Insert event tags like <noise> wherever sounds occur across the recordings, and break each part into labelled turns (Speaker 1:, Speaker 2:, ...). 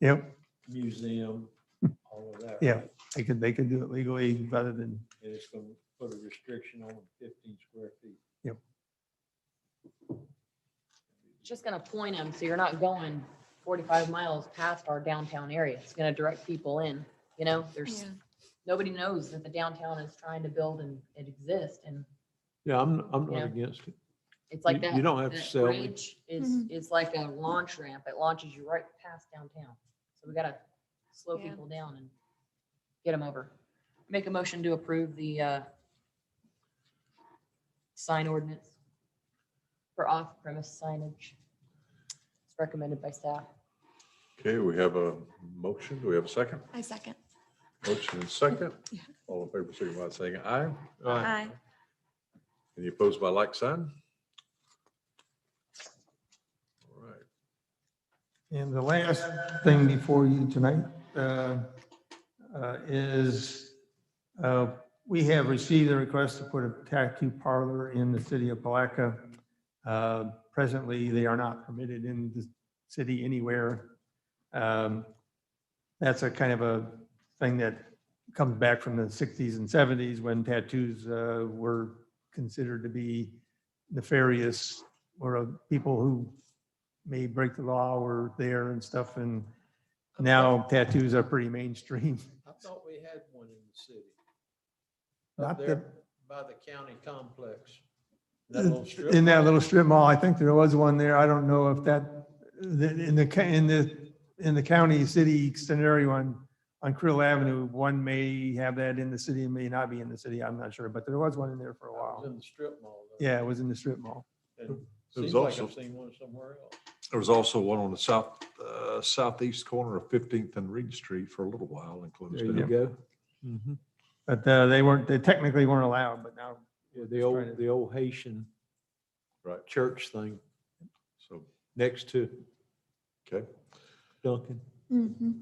Speaker 1: Yep,
Speaker 2: museum, all of that.
Speaker 1: Yeah.
Speaker 2: right?
Speaker 1: they could, they could do it legally rather than,
Speaker 2: And it's going to put a restriction on fifteen square feet.
Speaker 1: Yep.
Speaker 3: Just gonna point them, so you're not going forty-five miles past our downtown area. It's gonna direct people in, you know, there's, nobody knows that the downtown is trying to build and it exists and
Speaker 4: Yeah, I'm, I'm
Speaker 3: Yeah.
Speaker 4: not against it. You-
Speaker 3: it's like that.
Speaker 4: You don't have to
Speaker 3: that
Speaker 4: sell me.
Speaker 3: bridge Is,
Speaker 5: Mhm.
Speaker 3: is like a launch ramp. It launches you right past downtown. So we gotta slow
Speaker 5: Yeah.
Speaker 3: people down and get them over. Make a motion to approve the, uh, sign ordinance for off-premise signage. It's recommended by staff.
Speaker 6: Okay, we have a motion. Do we have a second?
Speaker 5: I second.
Speaker 6: Motion and second.
Speaker 5: Yeah.
Speaker 6: All in favor, signify by saying aye.
Speaker 4: Uh,
Speaker 5: Aye.
Speaker 6: Any opposed by like sign? All right.
Speaker 1: and the last thing before you tonight uh, uh, is uh, we have received a request to put a tattoo parlor in the city of Palaca. Uh, Presently, they are not permitted in the city anywhere. Um, That's a kind of a thing that comes back from the 60s and 70s when tattoos uh, were considered to be nefarious or uh, people who may break the law were there and stuff. And now tattoos are pretty mainstream.
Speaker 2: I thought we had one in the city.
Speaker 1: <laughs> Not
Speaker 2: Up
Speaker 1: that,
Speaker 2: there by the county complex. That little strip
Speaker 1: in that
Speaker 2: mall.
Speaker 1: little strip mall, I think there was one there. I don't know if that, the- in the, ca- in the, in the county, city scenario on, on Krill Avenue, one may have that in the city, may not be in the city. I'm not sure, but there was one in there for a
Speaker 2: That was
Speaker 1: while.
Speaker 2: In the strip mall. though.
Speaker 1: Yeah, it was in the strip mall.
Speaker 2: And
Speaker 6: It was
Speaker 2: Seems like
Speaker 6: also-
Speaker 2: I've seen one somewhere else.
Speaker 6: There was also one on the south, uh, southeast corner of 15th and Reed Street for a little while and closed
Speaker 4: There you
Speaker 6: down.
Speaker 4: go. Mhm.
Speaker 1: But uh, they weren't, they technically weren't allowed, but now
Speaker 4: Yeah, The
Speaker 1: trying to-
Speaker 4: old, the old Haitian
Speaker 6: Right.
Speaker 4: church thing
Speaker 6: So,
Speaker 4: next to
Speaker 6: okay.
Speaker 4: Duncan.
Speaker 5: Mhm.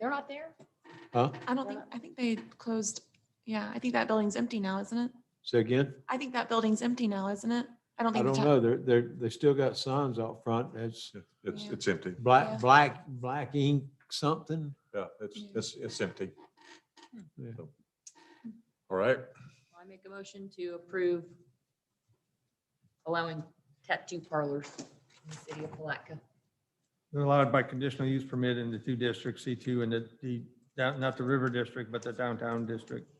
Speaker 3: They're not there?
Speaker 4: Huh?
Speaker 5: I don't think, I think they closed, yeah, I think that building's empty now, isn't it?
Speaker 4: Say again?
Speaker 5: I think that building's empty now, isn't it? I don't
Speaker 4: I
Speaker 5: think. the
Speaker 4: don't
Speaker 5: ta-
Speaker 4: know. They're, they're, they still got signs out front. It's
Speaker 6: Yeah, It's,
Speaker 5: Yeah.
Speaker 6: it's empty.
Speaker 5: Yeah.
Speaker 4: black, black, black ink something.
Speaker 6: Yeah, it's,
Speaker 5: Yeah.
Speaker 6: it's, it's empty.
Speaker 4: Yeah.
Speaker 6: So, All right.
Speaker 3: I make a motion to approve allowing tattoo parlors in the city of Palatka.
Speaker 1: They're allowed by conditional use permit in the two districts, C2 and the- the, down- not the river district, but the downtown district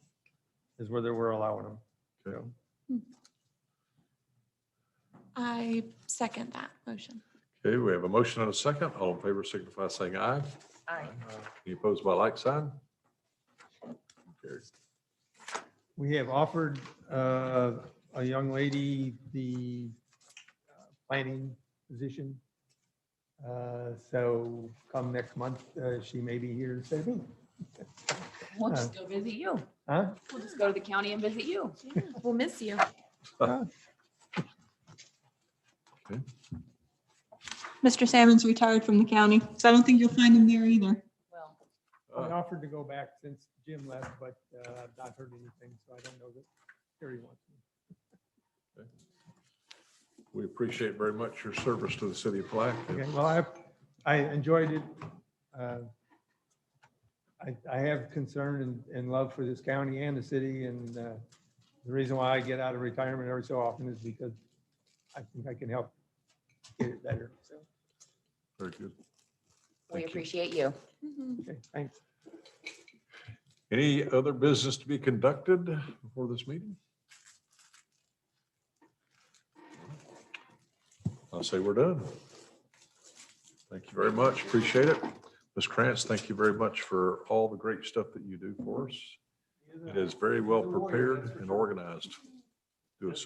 Speaker 1: is where they were allowing them.
Speaker 6: Okay.
Speaker 1: So,
Speaker 5: I second that motion.
Speaker 6: Okay, we have a motion and a second. All in favor, signify by saying aye.
Speaker 3: Aye.
Speaker 6: Any opposed by like sign? Carried.
Speaker 1: We have offered uh, a young lady the uh, planning position. Uh, So come next month, uh, she may be here instead of me.
Speaker 3: We'll just go visit you.
Speaker 1: Huh?
Speaker 3: We'll just go to the county and visit you.
Speaker 5: Yeah, We'll miss you.
Speaker 7: Mr. Salmon's retired from the county, so I don't think you'll find him there either.
Speaker 3: Well,
Speaker 1: I
Speaker 6: Uh,
Speaker 1: offered to go back since Jim left, but uh, I've not heard anything, so I don't know that Terry wants me.
Speaker 6: We appreciate very much your service to the city of
Speaker 1: Okay,
Speaker 6: Palaca.
Speaker 1: well, I, I enjoyed it. Uh, I, I have concern and, and love for this county and the city, and uh, the reason why I get out of retirement every so often is because I think I can help get it better, so,
Speaker 6: Very good.
Speaker 3: we
Speaker 6: Thank you.
Speaker 3: appreciate you.
Speaker 5: Mhm.
Speaker 1: okay, thanks.
Speaker 6: Any other business to be conducted before this meeting? I'll say we're done. Thank you very much. Appreciate it. Ms. Krantz, thank you very much for all the great stuff that you do for us. It is very well prepared and organized.